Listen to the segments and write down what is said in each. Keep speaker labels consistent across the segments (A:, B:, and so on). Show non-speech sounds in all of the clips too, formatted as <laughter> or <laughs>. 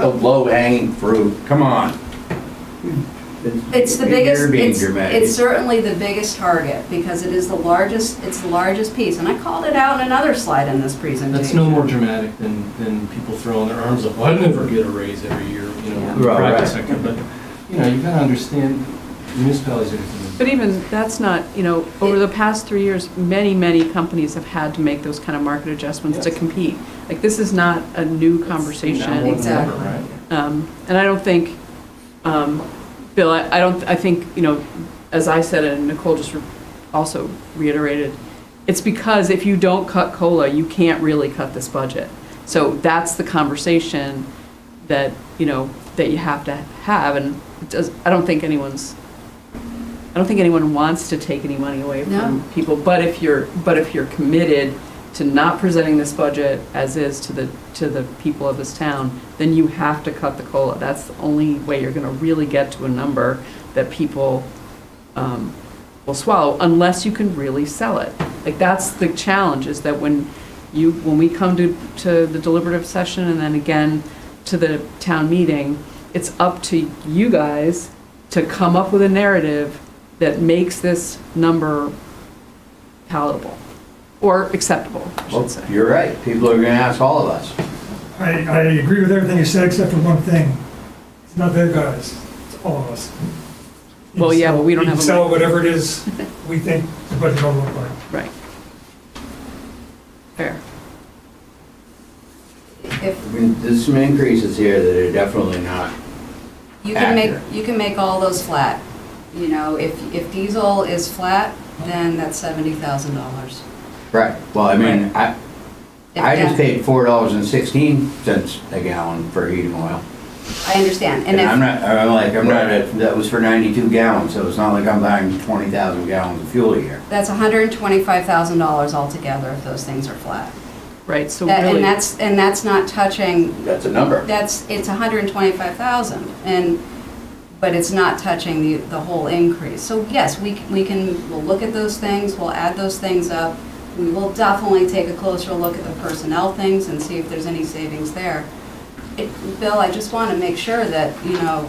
A: The low hanging fruit, come on.
B: It's the
A: You're
B: biggest,
A: being
B: it's,
A: dramatic.
B: it's certainly the biggest target, because it is the largest, it's the largest piece, and I called it out in another slide in this presentation.
C: That's no more dramatic than, than people throwing their arms up, I never get a raise every year, you know, in the
A: Right,
C: private
A: right.
C: sector, but, you know, you gotta understand municipalities are.
D: But even, that's not, you know, over the past three years, many, many companies have had to make those kind of market adjustments to
C: Yes.
D: compete. Like, this is not a new conversation.
B: more than ever. Exactly.
C: Right?
D: Um, And I don't think, um, Bill, I I don't, I think, you know, as I said, and Nicole just re- also reiterated, it's because if you don't cut COLA, you can't really cut this budget. So that's the conversation that, you know, that you have to have, and it does, I don't think anyone's, I don't think anyone wants to take any money away
B: No.
D: from people, but if you're, but if you're committed to not presenting this budget as is to the, to the people of this town, then you have to cut the COLA. That's the only way you're gonna really get to a number that people, um, will swallow, unless you can really sell it. Like, that's the challenge, is that when you, when we come to, to the deliberative session and then again to the town meeting, it's up to you guys to come up with a narrative that makes this number palatable, or acceptable, I
A: Well,
D: should say.
A: You're right, people are gonna ask all of us.
E: I, I agree with everything you said except for one thing. It's not their guys, it's all of us. You
D: Well,
E: can
D: yeah,
E: sell-
D: but we don't
E: you can
D: have a
E: Sell
D: mic.
E: whatever it is we think the budget will look like.
D: Right. Fair.
A: I
B: If
A: mean, there's some increases here that are definitely not,
B: You can make,
A: Accurate.
B: you can make all those flat, you know, if, if diesel is flat, then that's seventy thousand dollars.
A: right, well, I mean, I, I just paid four dollars and sixteen cents a gallon for heating oil.
B: I understand, and
A: And I'm
B: if,
A: not, I'm like, I'm not, a- that was for ninety-two gallons, so it's not like I'm buying twenty thousand gallons of fuel a year.
B: that's hundred and twenty-five thousand dollars altogether if those things are flat.
D: Right, so
B: That-
D: really.
B: And that's, and that's not touching,
A: That's a number.
B: that's, it's hundred and twenty-five thousand, and, but it's not touching the, the whole increase. So yes, we, c- we can, we'll look at those things, we'll add those things up. We will definitely take a closer look at the personnel things and see if there's any savings there. It- Bill, I just want to make sure that, you know,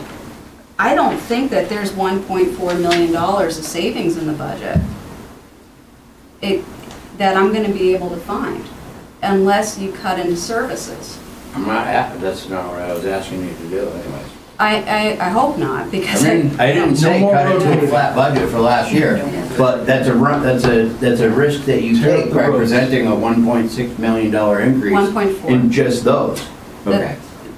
B: I don't think that there's $1.4 million of savings in the budget It that I'm going to be able to find, unless you cut into services.
A: I'm not, a- that's not what I was asking you to do anyways.
B: I, I, I hope not,
A: I
B: because. <laughs>
A: didn't, I didn't say
C: No more
A: cut it to a
C: rotating.
A: flat budget for last year, but that's a run, that's a, that's a risk that you
C: Tear up
A: take
C: the
A: by
C: roads.
A: presenting a one point six million dollar increase.
B: 1.4.
A: In just those.
B: That-
A: Okay.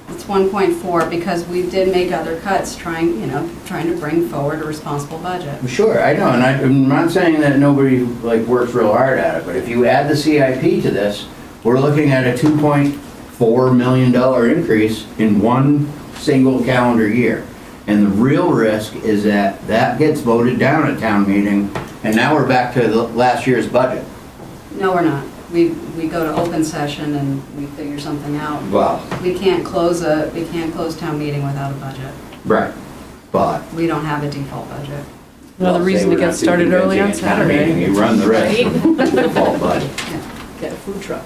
B: It's 1.4, because we did make other cuts trying, you know, trying to bring forward a responsible budget.
A: Sure, I know, and I- I'm not saying that nobody like works real hard at it, but if you add the CIP to this, we're looking at a two point four million dollar increase in one single calendar year. And the real risk is that that gets voted down at town meeting, and now we're back to the last year's budget.
B: No, we're not. We, we go to open session and we figure something out.
A: Well,
B: We can't close a, we can't close town meeting without a budget.
A: right, but.
B: We don't have a default budget.
D: Another reason to get started early on Saturday.
A: You run the risk. of default budget.
D: Get a food truck.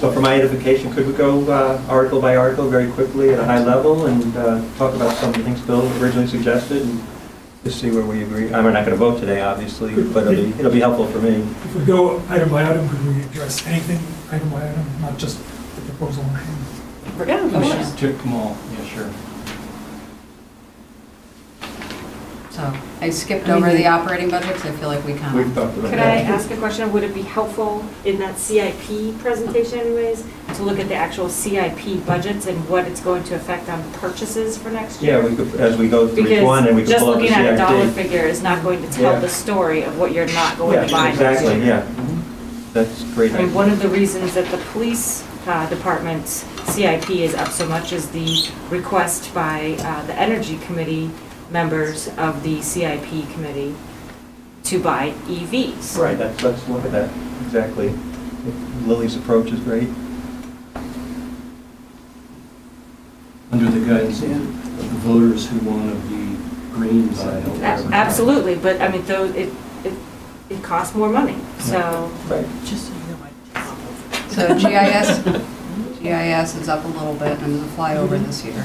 F: So for my edification, could we go uh, article by article very quickly at a high level and uh, talk about some of the things Bill originally suggested and just see where we agree? I mean, we're not going to vote today, obviously, but it'll be, it'll be helpful for me.
E: If we go item by item, could we address anything item by item, not just the proposal? on hand?
D: Oh, Yeah,
C: We should just took them all, yeah, sure.
B: So I skipped over the operating budget because I feel like we kind of.
F: talked about
G: Um, Could I ask a question? Would it be helpful in that CIP presentation anyways, to look at the actual CIP budgets and what it's going to affect on purchases for next
F: Yeah,
G: year?
F: we could, as we go through each one and we could
G: Because just
F: pull up the
G: looking at a dollar
F: CIP.
G: figure is not going to tell
F: Yeah.
G: the story of what you're not going to buy
F: Yeah,
G: next year.
F: exactly, yeah. That's great.
G: I mean, one of the reasons that the police uh, department's CIP is up so much is the request by uh, the Energy Committee members of the CIP committee to buy E EVs.
F: Right, that's, let's look at that, exactly. Lily's approach is great.
C: Under the guidance of the voters who want to be green side.
G: A- Absolutely, but I mean, though, it, it, it costs more money, so.
F: Right.
D: Just so you know, I
B: So GIS, GIS is up a little bit and the flyover this year.